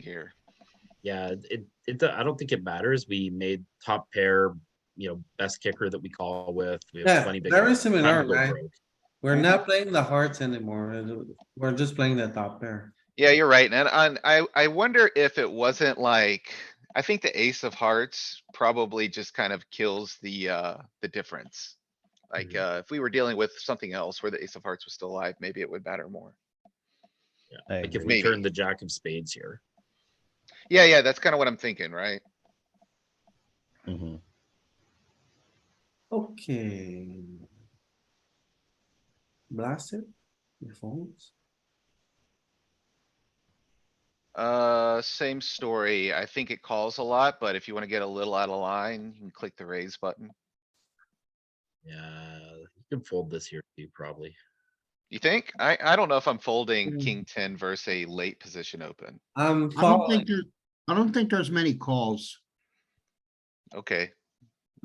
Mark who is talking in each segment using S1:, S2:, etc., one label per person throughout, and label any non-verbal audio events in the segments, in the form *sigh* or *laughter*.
S1: here.
S2: Yeah, it, it, I don't think it matters. We made top pair, you know, best kicker that we call with. We have
S3: Yeah,
S2: plenty big
S3: very
S2: odds. Time to
S3: similar,
S2: go
S3: right?
S2: broke.
S3: We're
S1: Mhm.
S3: not playing the hearts anymore. We're just playing the top pair.
S1: Yeah, you're right. And I, I, I wonder if it wasn't like, I think the ace of hearts probably just kind of kills the, uh, the difference. Like, uh, if we were dealing with something else where the ace of hearts was still alive, maybe it would matter more.
S4: I
S2: Like if
S4: agree.
S2: we
S1: Maybe.
S2: turn the jack of spades here.
S1: Yeah, yeah, that's kind of what I'm thinking, right?
S4: Mhm.
S3: Okay. Blast it. Your phones.
S1: Uh, same story. I think it calls a lot, but if you wanna get a little out of line, you can click the raise button.
S2: Yeah, you can fold this here too, probably.
S1: You think? I, I don't know if I'm folding
S3: Mm.
S1: king ten versus a late position open.
S3: I'm
S5: I don't
S3: calling.
S5: think there, I don't think there's many calls.
S1: Okay,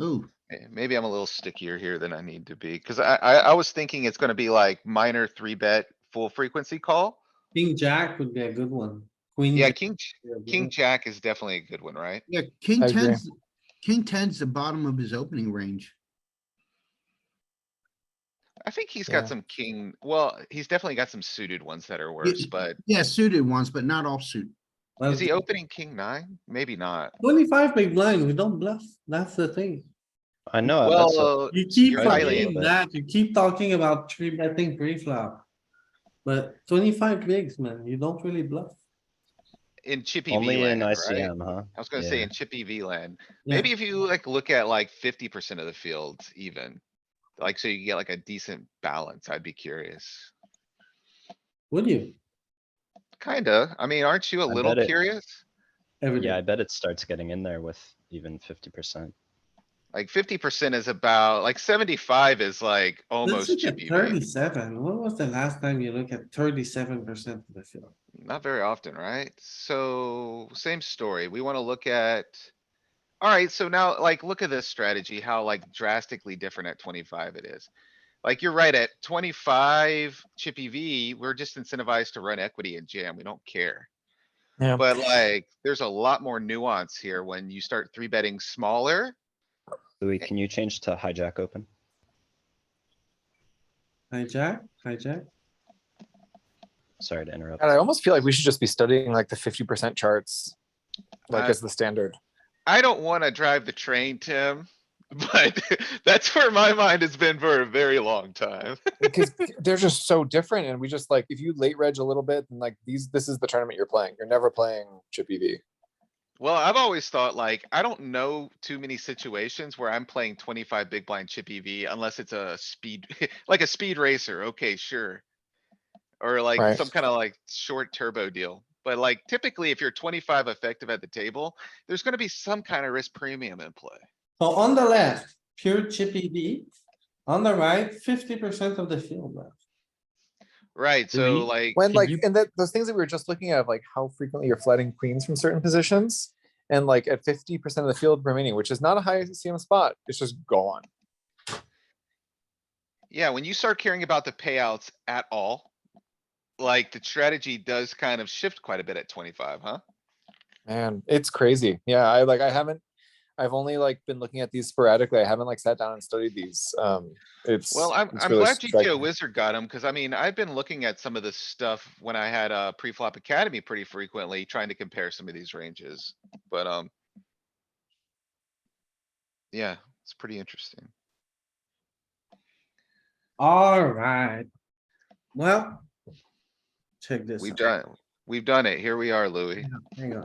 S5: Ooh,
S1: Eh, Maybe I'm a little stickier here than I need to be, cuz I, I, I was thinking it's gonna be like minor three bet, full frequency call.
S3: King jack would be a good one. Queen.
S4: Mm-hmm.
S1: Yeah,
S3: jack
S1: king, j-
S3: would be a good
S1: king
S3: one.
S1: jack is definitely a good one, right?
S5: yeah, king
S6: I agree.
S5: tens, king tens the bottom of his opening range.
S1: I think he's
S6: Yeah.
S1: got some king, well, he's definitely got some suited ones that are worse,
S5: y-
S1: but
S5: Yeah, suited ones, but not offsuit.
S3: Well,
S1: is he opening king nine? Maybe not.
S3: Twenty-five big blind, we don't bluff. That's the thing.
S4: I know. Oh, that's what-
S1: Well, uh,
S3: You keep
S1: You're
S3: talking
S4: right.
S3: that, you keep talking about three betting pre-flop. But twenty-five bigs, man, you don't really bluff.
S1: in chippy V
S4: Only in
S1: land, right?
S4: ICM, huh?
S1: I was gonna say
S4: Yeah.
S1: in chippy V land,
S3: Yeah.
S1: maybe if you like look at like fifty percent of the field even. Like, so you get like a decent balance, I'd be curious.
S3: Would you?
S1: Kinda, I mean, aren't you a
S4: I
S1: little
S4: bet it-
S1: curious?
S3: Every
S4: Yeah, I
S3: day.
S4: bet it starts getting in there with even fifty percent.
S1: Like fifty percent is about, like seventy-five is like
S3: Let's
S1: almost
S3: look at
S1: chippy V.
S3: thirty-seven. When was the last time you looked at thirty-seven percent of the field?
S1: Not very often, right? So same story. We wanna look at. Alright, so now like, look at this strategy, how like drastically different at twenty-five it is. Like, you're right, at twenty-five chippy V, we're just incentivized to run equity and jam. We don't care.
S6: Yeah.
S1: But like, there's a lot more nuance here when you start three betting smaller.
S4: Louis, can you change to hijack open?
S3: Hijack, hijack.
S4: Sorry to interrupt.
S6: And I almost feel like we should just be studying like the fifty percent charts, like
S1: Uh,
S6: as the standard.
S1: I don't wanna drive the train, Tim, *laughs* but that's where my mind has been for a very long time. *laughs*
S6: *laughs* Because they're just so different, and we just like if you late reg a little bit, and like these, this is the tournament you're playing. You're never playing chip E EV.
S1: Well, I've always thought like, I don't know too many situations where I'm playing twenty-five big blind chip EV unless it's a speed, *laughs* like a speed racer, okay, sure. Or like
S6: Right.
S1: some kind of like short turbo deal. But like typically, if you're twenty-five effective at the table, there's gonna be some kind of risk premium in play.
S3: So on the left, pure chippy V. On the right, fifty percent of the field left.
S1: Right, so like,
S6: When
S2: Can
S6: like
S2: you-
S6: and that those things that we were just looking at, of, like how frequently you're flatting queens from certain positions, and like at fifty percent of the field remaining, which is not a high CM spot, it's just gone.
S1: yeah, when you start caring about the payouts at all. Like the strategy does kind of shift quite a bit at twenty-five, huh?
S6: Man, it's crazy. Yeah, I like I haven't I've only like been looking at these sporadically. I haven't like sat down and studied these. Um it's
S1: Well, I'm,
S6: it's
S1: I'm
S6: really
S1: glad GTO
S6: striking.
S1: Wizard got him, cuz I mean, I've been looking at some of this stuff when I had uh pre-flop academy pretty frequently, trying to compare some of these ranges, but, um. Yeah, it's pretty interesting.
S3: Alright. Well. Check this
S1: We've
S3: out.
S1: done, we've done it. Here we are, Louis.
S3: Hang on.